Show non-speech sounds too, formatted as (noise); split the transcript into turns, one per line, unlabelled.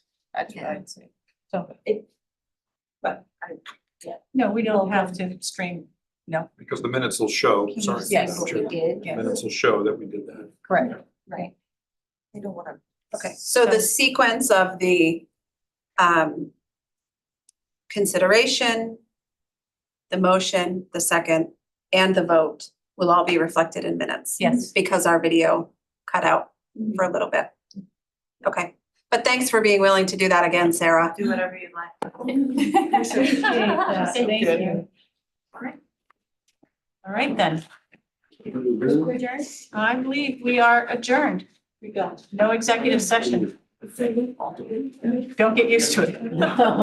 That's what I'd say. So,
but I,
no, we don't have to stream, no,
Because the minutes will show,
can you
sorry.
see
Yes.
Madam
what we
Chair,
did?
the
yes,
Minutes will show that we did that.
correct.
I don't wanna.
Okay.
So the sequence of the um consideration, the motion, the second, and the vote will all be reflected in minutes.
Yes. Mm-hmm.
Because our video cut out for a little bit. Okay, but thanks for being willing to do that again, Sarah.
Do whatever you
(laughs)
like.
(laughs) Appreciate that. Thank you. All right then, I believe we are adjourned. (laughs) We got no executive session. Don't get used to it.